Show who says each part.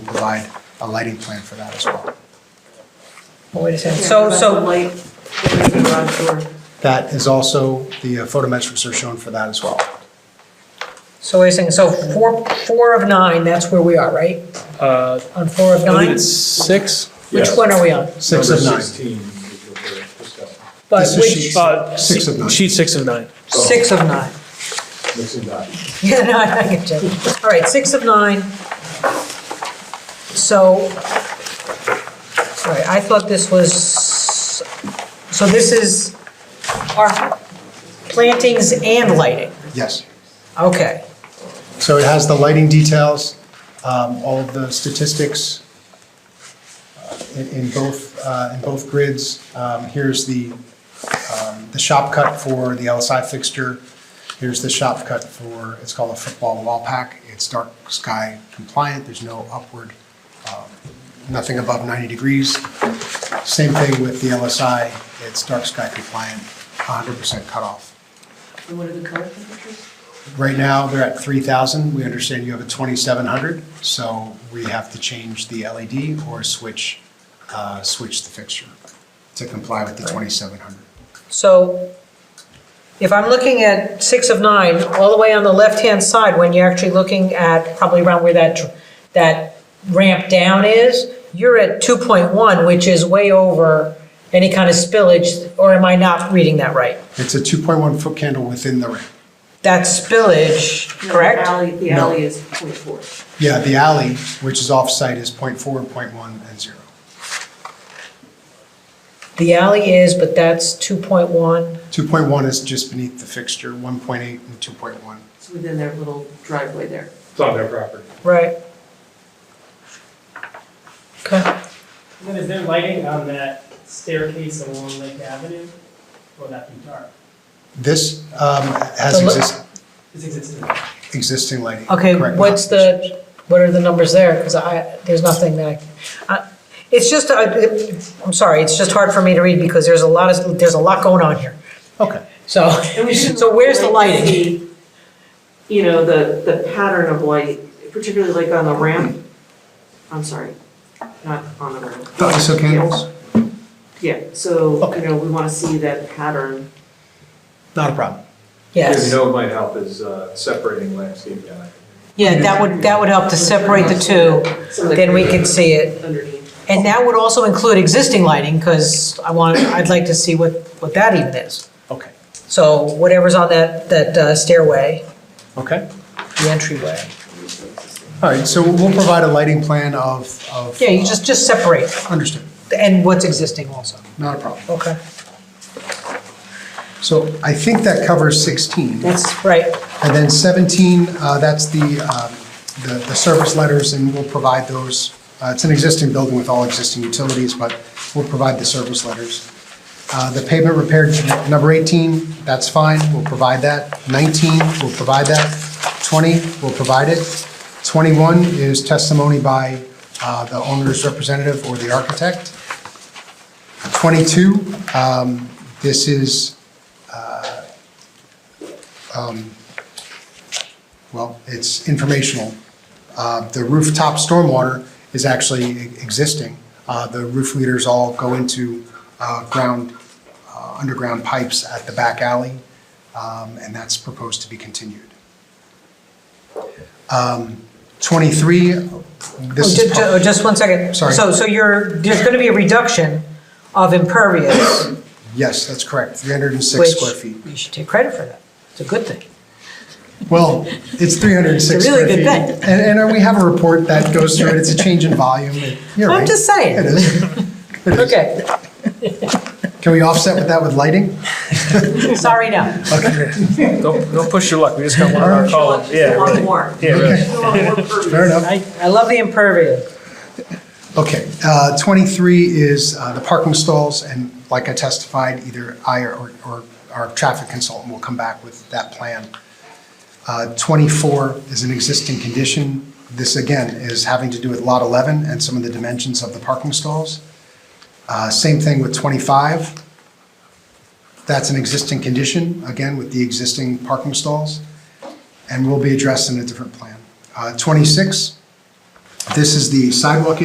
Speaker 1: provide a lighting plan for that as well.
Speaker 2: Oh, Wait a second, so, so,
Speaker 3: Light, the garage door.
Speaker 1: That is also, the uh, photometrics are shown for that as well.
Speaker 2: so wait a second, so four, four of nine, that's where we are, right?
Speaker 4: Uh,
Speaker 2: On four of
Speaker 4: I think
Speaker 2: nine?
Speaker 4: it's six.
Speaker 2: Which one are we on?
Speaker 1: Six of
Speaker 5: Number
Speaker 1: nine.
Speaker 5: 16 is what we're discussing,
Speaker 2: But
Speaker 1: This is
Speaker 2: which,
Speaker 4: Uh,
Speaker 1: Six of nine.
Speaker 4: Sheet six of nine.
Speaker 2: six of nine?
Speaker 5: mixing that.
Speaker 2: Yeah, no, I get you. All right, six of nine. So, all right, I thought this was, so this is our plantings and lighting,
Speaker 1: Yes.
Speaker 2: okay.
Speaker 1: So it has the lighting details, um, all of the statistics uh, in, in both, uh, in both grids. Um, here's the, um, the shop cut for the LSI fixture. Here's the shop cut for, it's called a football wall pack. It's dark sky compliant. There's no upward, um, nothing above 90 degrees. Same thing with the LSI. It's dark sky compliant, 100% cutoff.
Speaker 3: And what are the color temperatures?
Speaker 1: Right now, they're at 3,000. We understand you have a 2,700, so we have to change the LED or switch, uh, switch the fixture to comply with the 2,700.
Speaker 2: So if I'm looking at six of nine, all the way on the left-hand side, when you're actually looking at probably around where that, that ramp down is, you're at 2.1, which is way over any kind of spillage, or am I not reading that right?
Speaker 1: It's a 2.1 foot candle within the ramp.
Speaker 2: That spillage,
Speaker 3: The
Speaker 2: correct?
Speaker 3: alley, the
Speaker 1: No.
Speaker 3: alley is point four.
Speaker 1: Yeah, the alley, which is off-site, is .4, .1, and 0.
Speaker 2: The alley is, but that's 2.1.
Speaker 1: 2.1 is just beneath the fixture, 1.8 and 2.1.
Speaker 3: It's within their little driveway there.
Speaker 5: It's on their property.
Speaker 2: Right. Okay.
Speaker 6: And Then is there lighting on that staircase along Lake Avenue? Will that be dark?
Speaker 1: This um, has
Speaker 2: The lo-
Speaker 1: exist-
Speaker 6: It's existing.
Speaker 1: existing lighting.
Speaker 2: Okay,
Speaker 1: correct?
Speaker 2: what's the, what are the numbers there? Because I, there's nothing that I, I, it's just, I- it- I'm sorry, it's just hard for me to read because there's a lot of, there's a lot going on here.
Speaker 1: Okay.
Speaker 2: So,
Speaker 3: And we should
Speaker 2: so where's the
Speaker 3: like to
Speaker 2: lighting?
Speaker 3: see, You know, the, the pattern of light, particularly like on the ramp. I'm sorry, not on the ramp.
Speaker 1: The ISO candles?
Speaker 3: Yeah, so,
Speaker 1: Okay.
Speaker 3: you know, we want to see that pattern.
Speaker 1: Not a problem.
Speaker 5: You
Speaker 2: Yes.
Speaker 5: know, what might help is uh, separating landscaping. out.
Speaker 2: Yeah, that would, that would help to separate the two,
Speaker 3: Some of the
Speaker 2: then we can see it.
Speaker 3: Underneath.
Speaker 2: And that would also include existing lighting, because I want, I'd like to see what, what that even is.
Speaker 1: Okay.
Speaker 2: So whatever's on that, that uh, stairway,
Speaker 1: Okay.
Speaker 2: the entryway.
Speaker 1: All right, so we'll provide a lighting plan of, of.
Speaker 2: Yeah, you just, just separate,
Speaker 1: Understood,
Speaker 2: and what's existing also.
Speaker 1: not a problem.
Speaker 2: Okay.
Speaker 1: So I think that covers 16.
Speaker 2: That's right.
Speaker 1: And then 17, uh, that's the, um, the the service letters, and we'll provide those. Uh, It's an existing building with all existing utilities, but we'll provide the service letters. Uh, The pavement repair, number 18, that's fine, we'll provide that. 19, we'll provide that. 20, we'll provide it. 21 is testimony by uh, the owner's representative or the architect. 22, um, this is, uh, um, well, it's informational. Uh, The rooftop stormwater is actually e- existing. Uh, The roof leaders all go into uh, ground, uh, underground pipes at the back alley, um, and that's proposed to be continued. Um, 23,
Speaker 2: Oh,
Speaker 1: this
Speaker 2: ju-
Speaker 1: is.
Speaker 2: ju- oh, Just one second.
Speaker 1: Sorry.
Speaker 2: So, so you're, there's gonna be a reduction of impervious,
Speaker 1: Yes, that's correct, 306
Speaker 2: which
Speaker 1: square feet.
Speaker 2: you should take credit for that. It's a good thing.
Speaker 1: Well, it's 306
Speaker 2: It's a
Speaker 1: square
Speaker 2: really
Speaker 1: feet.
Speaker 2: good
Speaker 1: And, and uh, we have a report that goes through it, it's a change in volume, It- you're right.
Speaker 2: I'm just
Speaker 1: It
Speaker 2: saying.
Speaker 1: is.
Speaker 2: Okay,
Speaker 1: Can we offset with that with lighting?
Speaker 2: sorry now.
Speaker 1: Okay,
Speaker 4: Don't, don't push your luck. We just got one on our column. Oh, Yeah,
Speaker 3: One
Speaker 4: really.
Speaker 3: more.
Speaker 4: Yeah, really.
Speaker 1: fair enough.
Speaker 2: I, I love the impervious.
Speaker 1: Okay, uh, 23 is uh, the parking stalls, and like I testified, either I or or our traffic consultant will come back with that plan. Uh, 24 is an existing condition. This, again, is having to do with Lot 11 and some of the dimensions of the parking stalls. Uh, Same thing with 25. That's an existing condition, again, with the existing parking stalls, and will be addressed in a different plan. Uh, 26 This is the sidewalk